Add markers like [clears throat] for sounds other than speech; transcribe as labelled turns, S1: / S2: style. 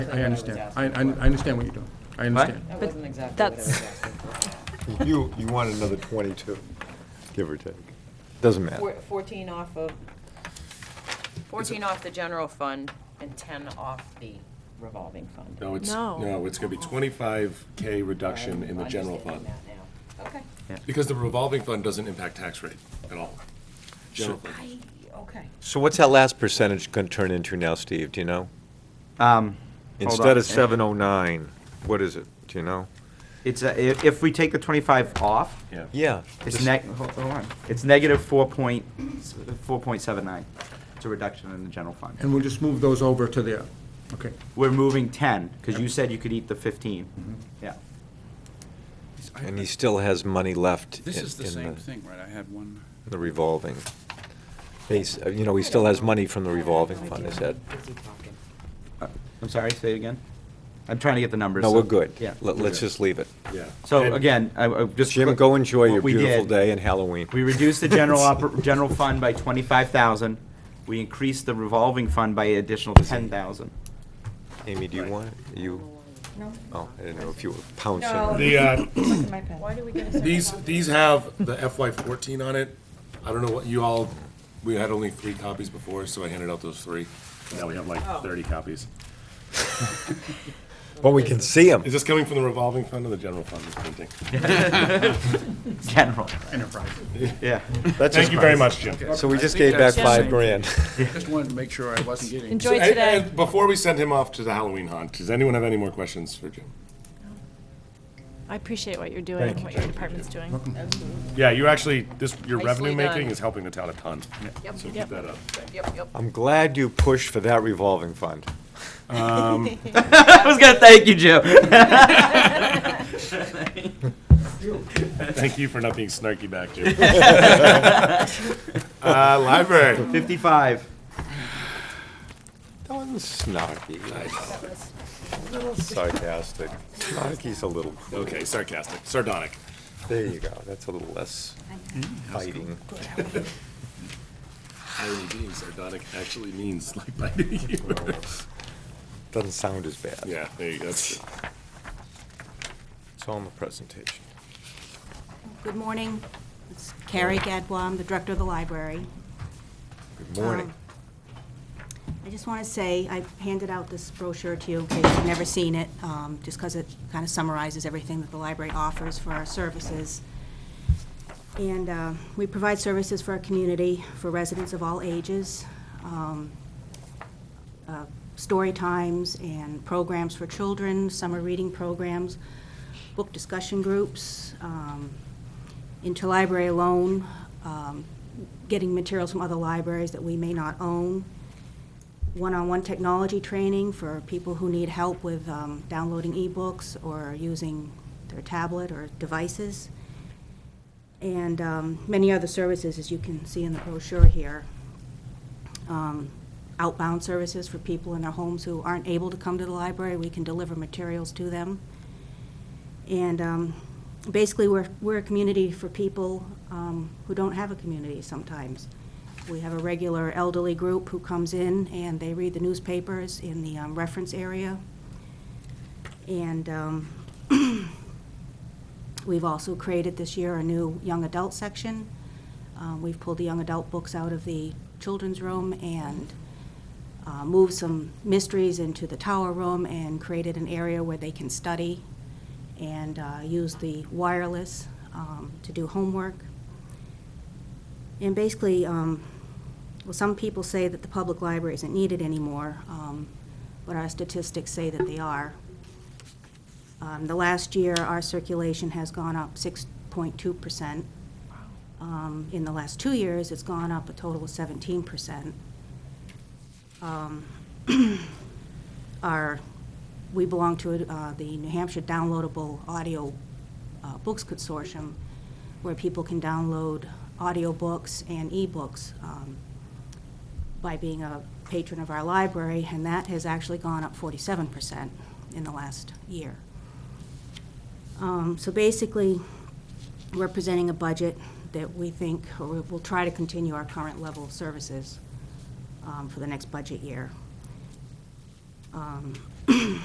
S1: I understand. I, I I understand what you're doing. I understand.
S2: That
S3: But
S2: wasn't exactly what I was
S3: that's-
S2: asking for.
S4: You, you want another 22, give or take. Doesn't matter.
S2: Four- 14 off of, 14 off the general fund and 10 off the revolving fund.
S5: No, it's,
S3: No.
S5: no, it's gonna be twenty-five K reduction in the
S2: I'm
S5: general
S2: understanding
S5: fund.
S2: that now. Okay.
S5: Because the revolving fund doesn't impact tax rate at all. General fund.
S2: I- Okay.
S4: So what's that last percentage going to turn into now, Steve, do you know?
S6: Um, hold
S4: Instead of
S6: on.
S4: 709, what is it, do you know?
S6: It's, uh, if, if we take the twenty-five off,
S5: Yeah.
S4: Yeah.
S6: it's neg, hold hold on, it's negative four point, four point seven nine. It's a reduction in the general fund.
S1: And we'll just move those over to there. Okay.
S6: We're moving ten, because you said you could eat the
S4: Mm-hmm.
S6: fifteen. Yeah.
S4: And he still has money left in
S7: This is the
S4: in
S7: same
S4: the
S7: thing, right? I had one.
S4: the revolving. He's, uh, you know, he still has money from the revolving
S2: I
S4: fund,
S2: do
S4: is
S2: have
S4: that?
S2: a busy pocket.
S6: Uh, I'm sorry, say it again? I'm trying to get the numbers.
S4: No,
S6: so-
S4: we're good.
S6: Yeah.
S4: Let- Let's just leave it.
S5: Yeah.
S6: So
S5: And-
S6: again, I, I just.
S4: Jim, go enjoy your
S6: what we
S4: beautiful
S6: did-
S4: day and Halloween.
S6: We reduced
S4: [laughs]
S6: the general oper, general fund by twenty-five thousand. We increased the revolving fund by additional ten thousand.
S4: Amy, do you want, it? you,
S8: No.
S4: oh, I didn't know if you were pouncing.
S8: No.
S4: or-
S5: The, uh,
S8: Look at my pen.
S2: Why do we get a second
S5: these,
S2: copy?
S5: these have the FY fourteen on it. I don't know what you all, we had only three copies before, so I handed out those three. Now we have like
S2: Oh.
S5: thirty copies.
S4: But we can see him.
S5: Is this coming from the revolving fund or the general fund, this printing?
S6: General,
S1: Enterprise.
S6: yeah.
S5: Thank you very much, Jim.
S4: So we just
S7: I
S4: gave
S7: think
S4: back
S7: that's the
S4: five
S7: same.
S4: grand. [laughs]
S7: Just wanted to make sure I wasn't getting.
S3: Enjoy
S5: And-
S3: today.
S5: and Before we send him off to the Halloween hunt, does anyone have any more questions for Jim?
S3: I appreciate what you're doing and what your department's doing.
S5: Yeah, you actually, this, your
S2: Nicely
S5: revenue making
S2: done.
S5: is helping the town a ton. So keep
S3: Yep.
S5: that up.
S2: Yep, yep.
S4: I'm glad you pushed for that revolving fund.
S6: I was gonna thank you, Jim.
S5: Thank you for not being snarky back,
S3: [laughs]
S5: Jim. Uh, library.
S6: Fifty-five.
S4: That was snarky. I know. A little sarcastic. Snarky's a little,
S5: Okay, sarcastic,
S3: [laughs]
S5: sardonic.
S4: there you go, that's a little less biting.
S5: Irony being sardonic actually means like biting you.
S3: [laughs]
S4: Doesn't sound as bad.
S5: [laughs] Yeah, there you go. That's true.
S4: It's all in the presentation.
S8: Good morning. It's Carrie Gadbois, I'm the director of the library.
S4: Good morning.
S8: Um, I just want to say, I handed out this brochure to you in case you've never seen it, um, just because it kind of summarizes everything that the library offers for our services. And uh, we provide services for our community, for residents of all ages, um, uh, story times and programs for children, summer reading programs, book discussion groups, um, interlibrary loan, um, getting materials from other libraries that we may not own, one-on-one technology training for people who need help with um, downloading ebooks or using their tablet or devices, and um, many other services, as you can see in the brochure here. Um, Outbound services for people in their homes who aren't able to come to the library, we can deliver materials to them. And um, basically, we're, we're a community for people um, who don't have a community sometimes. We have a regular elderly group who comes in, and they read the newspapers in the um, reference area. And um, [clears throat] we've also created this year a new young adult section. Um, We've pulled the young adult books out of the children's room and uh, moved some mysteries into the tower room and created an area where they can study and uh, use the wireless um, to do homework. And basically, um, well, some people say that the public library isn't needed anymore, um, but our statistics say that they are. Um, The last year, our circulation has gone up 6.2%. Um, In the last two years, it's gone up a total of 17%. Um, [clears throat] Our, we belong to uh, the New Hampshire Downloadable Audio uh, Books Consortium, where people can download audiobooks and ebooks um, by being a patron of our library, and that has actually gone up 47% in the last year. Um, So basically, we're presenting a budget that we think, or we will try to continue our current level of services um, [clears throat] for the next budget year. Um,